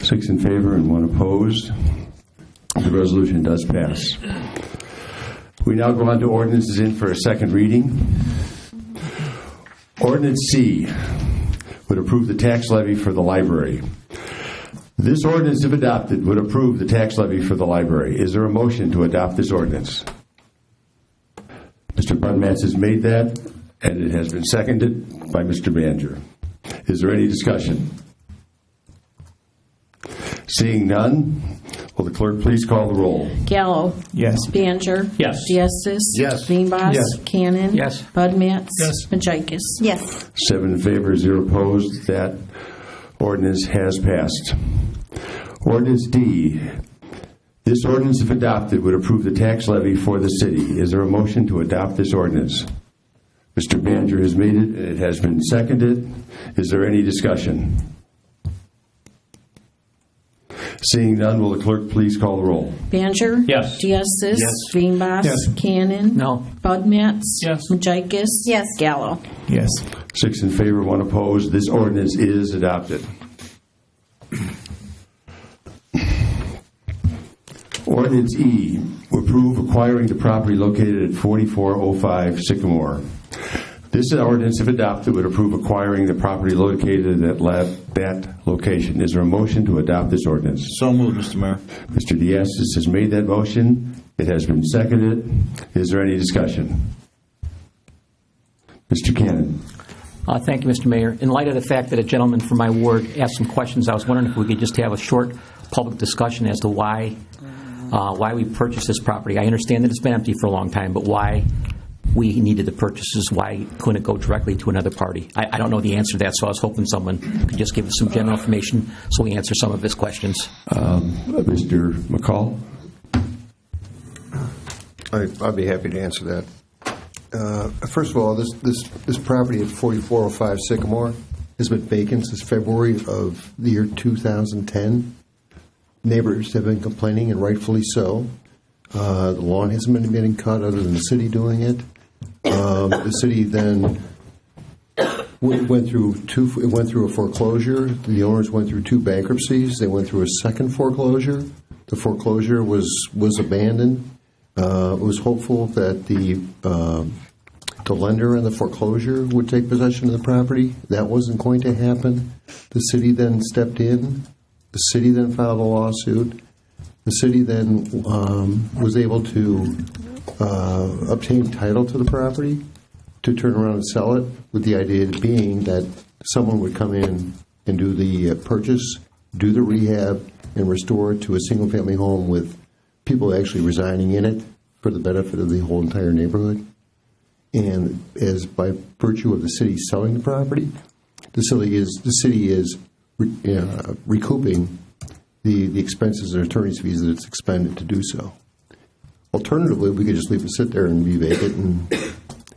Six in favor and one opposed. The resolution does pass. We now go on to ordinances in for a second reading. Ordinance C would approve the tax levy for the library. This ordinance, if adopted, would approve the tax levy for the library. Is there a motion to adopt this ordinance? Mr. Budmats has made that, and it has been seconded by Mr. Baner. Is there any discussion? Seeing none, will the clerk please call the roll? Gallo. Yes. Baner. Yes. Diestis. Yes. Veenbos. Yes. Cannon. Yes. Budmats. Yes. Majikis. Yes. Seven in favor, zero opposed. That ordinance has passed. Ordinance D, this ordinance, if adopted, would approve the tax levy for the city. Is there a motion to adopt this ordinance? Mr. Baner has made it, and it has been seconded. Is there any discussion? Seeing none, will the clerk please call the roll? Baner. Yes. Diestis. Yes. Veenbos. Yes. Cannon. No. Budmats. Yes. Majikis. Yes. Gallo. Yes. Six in favor, one opposed. This ordinance is adopted. Ordinance E, approve acquiring the property located at 4405 Sycamore. This ordinance, if adopted, would approve acquiring the property located at la- that location. Is there a motion to adopt this ordinance? So moved, Mr. Mayor. Mr. Diastis has made that motion. It has been seconded. Is there any discussion? Mr. Cannon. Uh, Thank you, Mr. Mayor. In light of the fact that a gentleman from my ward asked some questions, I was wondering if we could just have a short public discussion as to why, uh, why we purchased this property. I understand that it's been empty for a long time, but why we needed the purchases, why couldn't it go directly to another party? I I don't know the answer to that, so I was hoping someone could just give us some general information so we answer some of his questions. Mr. uh, McCall? I- I'd be happy to answer that. Uh, First of all, this, this, this property at 4405 Sycamore has been vacant since February of the year 2010. Neighbors have been complaining, and rightfully so. Uh, The lawn hasn't been getting cut, other than the city doing it. Um, The city then we went through two, it went through a foreclosure. The owners went through two bankruptcies. They went through a second foreclosure. The foreclosure was, was abandoned. Uh, It was hopeful that the, um, the lender in the foreclosure would take possession of the property. That wasn't going to happen. The city then stepped in. The city then filed a lawsuit. The city then um, was able to uh, obtain title to the property, to turn around and sell it, with the idea being that someone would come in and do the uh, purchase, do the rehab, and restore it to a single-family home with people actually residing in it for the benefit of the whole entire neighborhood. And as by virtue of the city selling the property, the city is, the city is re- uh, recouping the, the expenses and attorney's fees that it's expended to do so. Alternatively, we could just leave it sit there and be vacant and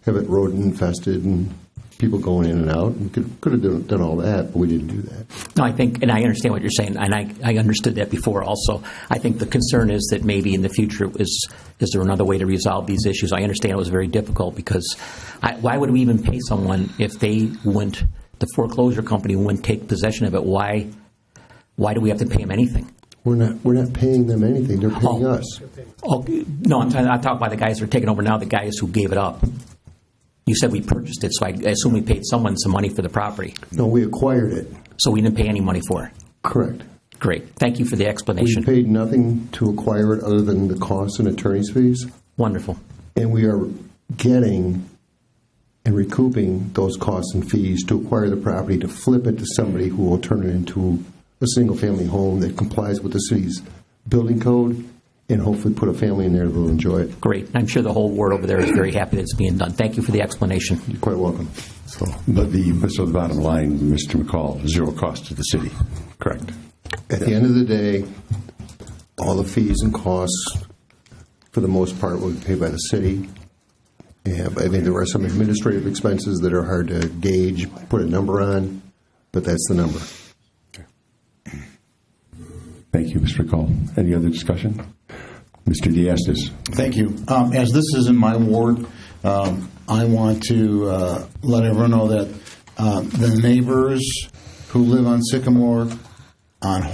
have it rodent infested and people going in and out. We could, could have done, done all that, but we didn't do that. No, I think, and I understand what you're saying, and I, I understood that before also. I think the concern is that maybe in the future, is, is there another way to resolve these issues? I understand it was very difficult, because I, why would we even pay someone if they wouldn't, the foreclosure company wouldn't take possession of it? Why, why do we have to pay them anything? We're not, we're not paying them anything. They're paying Oh. us. Oh, no, I'm, talking- I'm talking about the guys who are taking over now, the guys who gave it up. You said we purchased it, so I assume we paid someone some money for the property, No, we acquired it. so we didn't pay any money for it. Correct. Great, thank you for the We explanation. paid nothing to acquire it other than the costs and attorney's fees, Wonderful. and we are getting and recouping those costs and fees to acquire the property to flip it to somebody who will turn it into a single-family home that complies with the city's building code and hopefully put a family in there that will enjoy it. Great. I'm sure the whole world over there is very happy that it's being done. Thank you for the explanation. You're quite welcome. So, but the, so the bottom line, Mr. McCall, zero cost to the city, correct? At the end of the day, all the fees and costs, for the most part, will be paid by the city. And I think there are some administrative expenses that are hard to gauge, put a number on, but that's the number. Thank you, Mr. McCall. Any other discussion? Mr. Diastis? Thank you. Um, As this is in my ward, um, I want to uh, let everyone know that uh, the neighbors who live on Sycamore, on